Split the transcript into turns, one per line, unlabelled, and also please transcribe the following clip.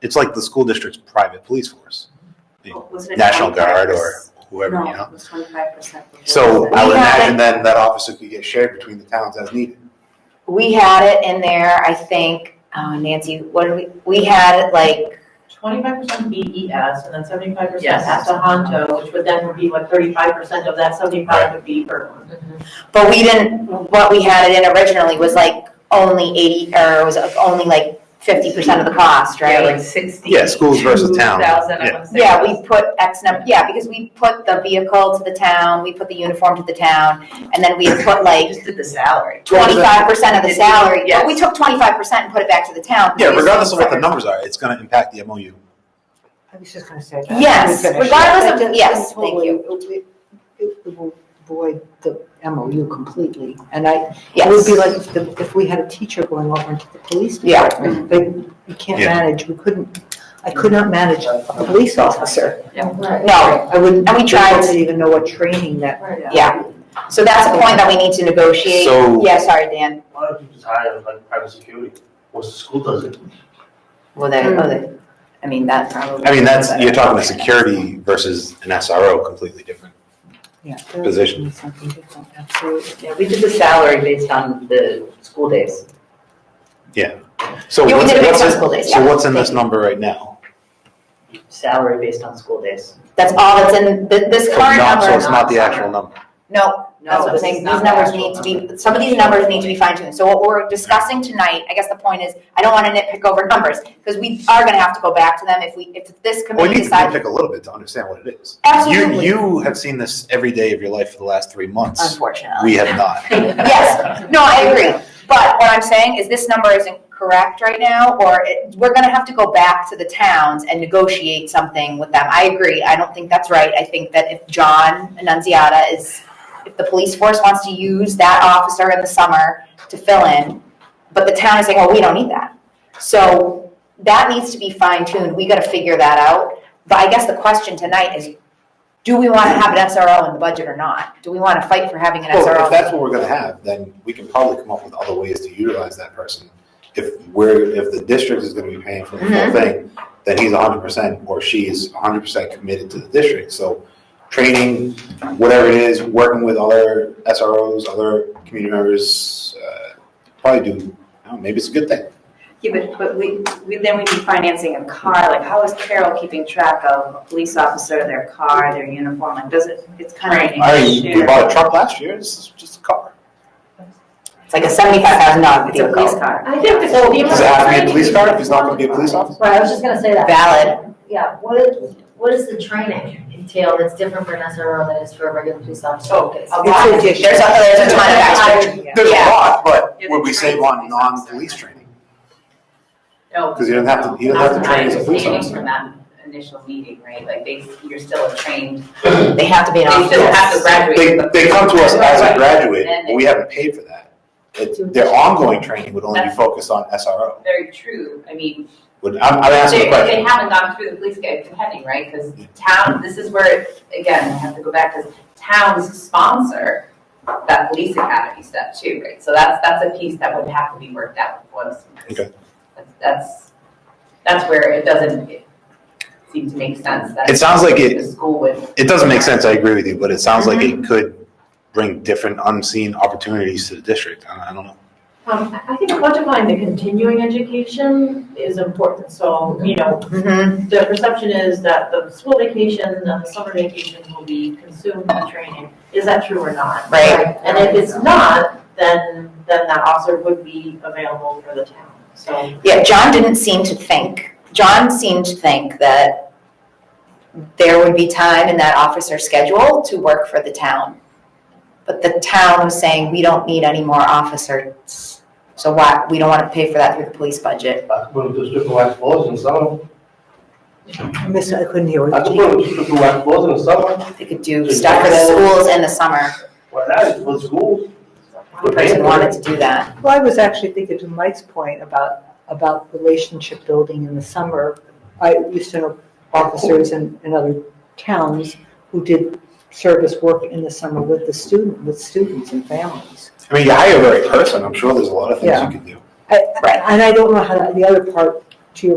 it's like the school district's private police force,
Oh, Was it
National
25%?
Guard or whoever,
No,
you know?
it was twenty-five percent.
So I would
We had
imagine then that officer could get shared between the towns as needed.
We had it in there, I think, oh, Nancy, what did we, we had it like,
Twenty-five percent BES and then seventy-five percent
Yes.
Pocahontas, which would then would be what thirty-five percent of that seventy-five would be Berlin.
but we didn't, what we had it in originally was like only eighty, or was only like fifty percent of the cost,
Yeah,
right?
like sixty.
Yeah, schools versus towns, yeah.
I wanna say.
Yeah, we put X number, yeah, because we put the vehicle to the town, we put the uniform to the town, and then we put like
Just did the salary.
twenty-five percent of the salary, but
Yes.
we took twenty-five percent and put it back to the town.
Yeah, regardless of what the numbers are, it's gonna impact the MOU.
I was just gonna say that.
Yes,
Let me finish.
regardless
That
of, yes, thank you,
totally- It it- it will void the MOU completely, and I,
yes.
it would be like if the, if we had a teacher going over into the police
Yeah.
department. But we can't
Yeah.
manage, we couldn't, I could not manage a police officer.
No,
I wouldn't,
And we tried
I
to-
wouldn't even know what training that.
yeah, so that's a point that we need to negotiate.
So-
Yeah, sorry, Dan.
Why don't you just hire like private security? What's the school does it?
Well, that,
Hmm.
oh, that, I mean, that probably.
I mean, that's, you're talking about security versus an SRO, completely different.
Yeah.
Position.
Something different, absolutely.
Yeah, we did the salary based on the school days.
So
Yeah, we
what's,
did it
what's
with
in-
school days,
so
yeah.
what's in this number right now?
Salary based on school days.
That's all that's in, th- this
So
current
not-
number.
So it's not the actual number.
No, that's what I'm
this
saying,
is
these
not
numbers
actual
need to be, some of these numbers need to be fine tuned. So what we're discussing tonight, I guess the point is, I don't wanna nitpick over numbers, because we are gonna have to go back to them if we, if this
Well, you
committee
need to
decides.
nitpick a little bit to understand what it is. You,
Absolutely.
you have seen this every day of your life for the last three months.
Unfortunately.
We have not.
Yes, no, I agree. But what I'm saying is this number isn't correct right now, or it, we're gonna have to go back to the towns and negotiate something with them. I agree, I don't think that's right. I think that if John Annunziata is, if the police force wants to use that officer in the summer to fill in, but the town is saying, oh, we don't need that. So that needs to be fine tuned, we gotta figure that out. But I guess the question tonight is, do we wanna have an SRO in the budget or not? Do we wanna fight for having an SRO?
Well, if that's what we're gonna have, then we can probably come up with other ways to utilize that person. If we're, if the district is gonna be paying for the whole
Mm-hmm.
Mhm.
thing, then he's hundred percent, or she is hundred percent committed to the district, so training, whatever it is, working with other SROs, other community members, uh, probably do, I don't know, maybe it's a good thing.
Yeah, but, but we, we, then we need financing a car, like how is Carol keeping track of a police officer, their car, their uniform, like does it, it's kind of.
I, we bought a truck last year, this is just a car.
It's like a seventy-five thousand dollar
It's a police
vehicle.
car.
I think the
Oh, Does it have to be a police car if he's not gonna be a police officer?
Right, I was just gonna say that.
Valid.
Yeah, what is, what does the training entail that's different for an SRO than is for a regular police officer?
A lot.
It's
There's a,
addition.
there's a ton of extra.
There's a
Yeah.
lot, but
Yeah,
would we
the
save
training
on
is not
non-police training?
No.
Because you don't have to, you don't have to train as a police officer.
from that initial meeting, right? Like they, you're still a trained.
They have to be an
They
officer.
still have to graduate.
They, they come to us as a graduate, but we haven't paid for that. It- Their ongoing training would only be focused on SRO.
Very true. I mean,
Would, I'm, I'm asking
they,
the
they
question.
haven't gone through the police guide depending, right? Because town, this is where, again, I have to go back, because towns sponsor that police academy stuff too, right? So that's, that's a piece that would have to be worked out once. because
Okay.
That's, that's where it doesn't seem to make sense that.
It sounds like it-
The school Mm-hmm. would.
It doesn't make sense, I agree with you, but it sounds like it could bring different unseen opportunities to the district. I, I don't know.
Um, I think quantifying the continuing education is important, so, you know,
Mhm.
the perception is that the school vacation and the summer vacation will be consumed with training. Is that true or not?
Right.
And if it's not, then, then that officer would be available for the town, so.
Yeah, John didn't seem to think, John seemed to think that there would be time in that officer's schedule to work for the town. But the town was saying, we don't need any more officers, so why, we don't wanna pay for that through the police budget.
I could put them to supervised floors in the summer.
I missed, I couldn't hear
I
what
could
you.
put them to supervised floors in the summer.
They could do stuff for the schools in the summer,
Why not? For schools.
one person wanted to do that.
Well, I was actually thinking to Mike's point about, about relationship building in the summer. I used to know officers in, in other towns who did service work in the summer with the student, with students and families.
I mean, you hire the right person, I'm sure there's a lot of things
Yeah.
you could do.
I- And I don't know how, that- the other part to your